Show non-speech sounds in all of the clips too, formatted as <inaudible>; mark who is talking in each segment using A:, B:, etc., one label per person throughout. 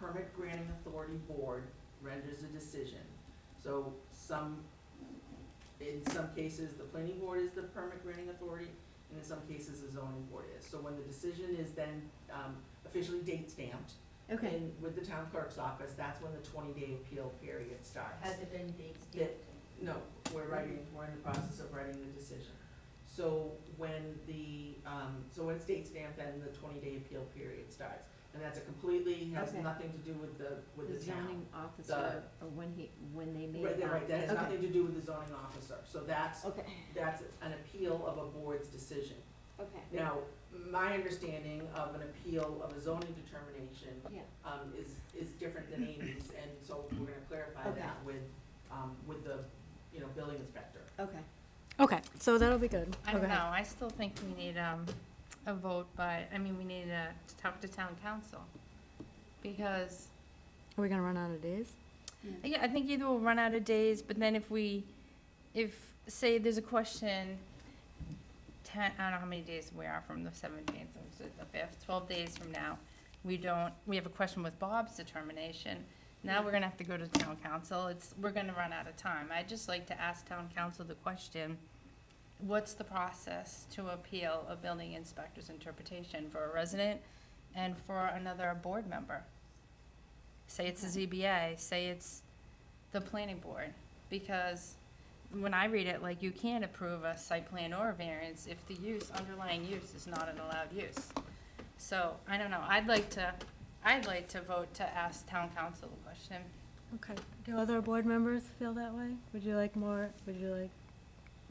A: permit granting authority board renders a decision. So some, in some cases, the planning board is the permit granting authority, and in some cases, the zoning board is. So when the decision is then um, officially date stamped
B: Okay,
A: in- with the town clerk's office, that's when the twenty-day appeal period starts.
C: Has it been date
A: Yeah.
C: stamped?
A: No, we're writing, we're in the process of writing the decision. So when the, um, so when it's date stamped, then the twenty-day appeal period starts. And that's a completely, has
B: Okay.
A: nothing to do with the, with
B: the
A: the town.
B: zoning officer, or when he, when they made.
A: Right, that- right, that has
B: okay.
A: nothing to do with the zoning officer, so that's,
B: Okay,
A: that's an appeal of a board's decision.
B: okay,
A: Now, my understanding of an appeal of a zoning determination,
B: yeah,
A: um, is, is different than Amy's, and so we're gonna clarify
B: Okay.
A: that with, um, with the, you know, building inspector.
B: okay.
D: Okay, so that'll be good.
E: I don't
D: Okay.
E: know, I still think we need, um, a vote, but, I mean, we need to, to talk to town council. Because,
D: Are we gonna run out of days?
E: yeah, I think either we'll run out of days, but then if we, if, say, there's a question, ten, I don't know how many days we are from the seventeenth, or the fifth, twelve days from now, we don't, we have a question with Bob's determination, now we're gonna have to go to town council, it's, we're gonna run out of time. I'd just like to ask town council the question, what's the process to appeal a building inspector's interpretation for a resident and for another board member? Say it's the ZBA, say it's the planning board, because when I read it, like, you can't approve a site plan or a variance if the use, underlying use is not an allowed use. So, I don't know, I'd like to, I'd like to vote to ask town council the question.
D: Okay. Do other board members feel that way? Would you like more, would you like,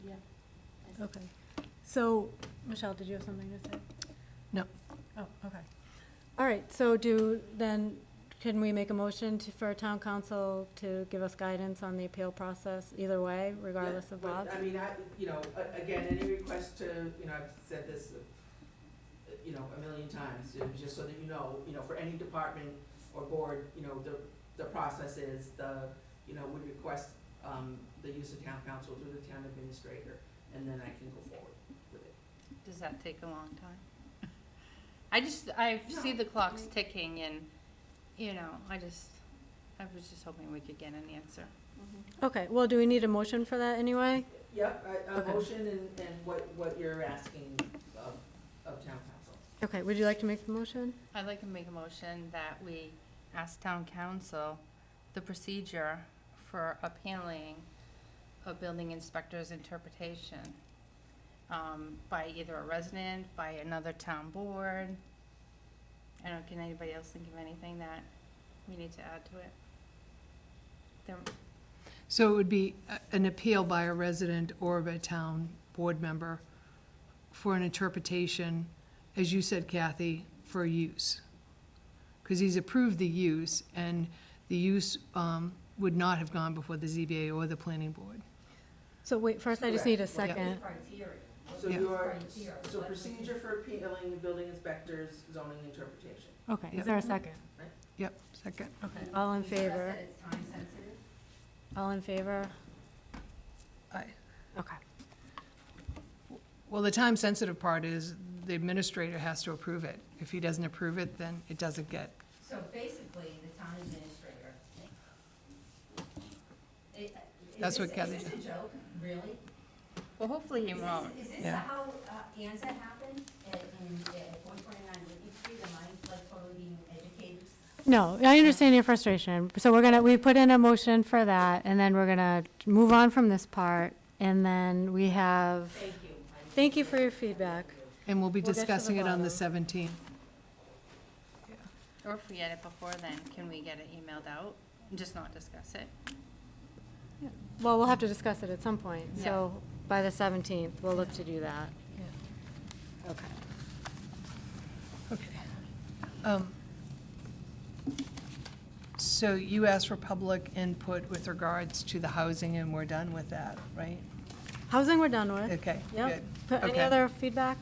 C: Yeah.
D: okay. So, Michelle, did you have something to say?
F: No.
D: Oh, okay. All right, so do, then, can we make a motion to, for town council to give us guidance on the appeal process either way, regardless
A: Yeah,
D: of
A: but,
D: Bob's?
A: I mean, I, you know, a- again, any request to, you know, I've said this, uh, you know, a million times, you know, just so that you know, you know, for any department or board, you know, the, the process is the, you know, would request, um, the use of town council through the town administrator, and then I can go forward with it.
E: Does that take a long time? <laughs> I just, I see the clocks ticking and, you know, I just, I was just hoping we could get an answer.
B: Mm-hmm.
D: Okay, well, do we need a motion for that anyway?
A: Yep, a, a
D: Okay.
A: motion and, and what, what you're asking of, of town council.
D: Okay, would you like to make the motion?
E: I'd like to make a motion that we ask town council the procedure for appealing a building inspector's interpretation um, by either a resident, by another town board. I don't, can anybody else think of anything that we need to add to it? There,
F: So it would be a- an appeal by a resident or of a town board member for an interpretation, as you said, Kathy, for use. Because he's approved the use, and the use um, would not have gone before the ZBA or the planning board.
D: So wait, first I just need a
A: Correct. Yeah.
D: second.
C: Criteria.
A: So
F: Yeah.
A: your,
C: Criteria.
A: so procedure for appealing the building inspector's zoning interpretation.
D: Okay, is there a second?
F: Yep, second.
D: Okay, all in
C: You stress
D: favor?
C: that it's time sensitive?
D: All in favor?
F: Aye.
D: Okay.
F: Well, the time-sensitive part is the administrator has to approve it. If he doesn't approve it, then it doesn't get,
C: So basically, the town administrator. It- is
F: That's what
C: this-
F: Kathy-
C: Is this a joke, really?
E: well, hopefully you
C: Is this-
E: won't.
C: Is this
F: Yeah.
C: how uh, ANZA happened at, in, at one twenty-nine Whitney Street? Am I like totally being educated?
D: No, I understand your frustration. So we're gonna, we put in a motion for that, and then we're gonna move on from this part, and then we have,
C: Thank you. I'm-
D: thank you for your feedback.
F: and we'll be
D: We'll get to the
F: discussing it on the
D: bottom.
F: 17th.
E: Or if we get it before then, can we get it emailed out? Just not discuss it?
D: Well, we'll have to discuss it at some point, so by the 17th, we'll look to do that. Okay.
F: Okay. Um, So you asked for public input with regards to the housing, and we're done with that, right?
D: Housing we're done with.
F: Okay,
D: Yep.
F: good.
D: Put- Any
F: Okay.
D: other feedback?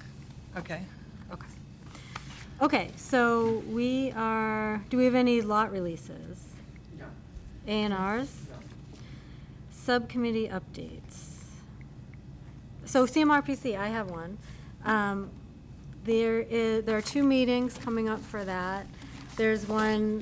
F: Okay.
D: Okay. Okay, so we are, do we have any lot releases?
A: No,
D: A and Rs?
A: no.
D: Subcommittee updates. So CMRPC, I have one. Um, There is, there are two meetings coming up for that. There's one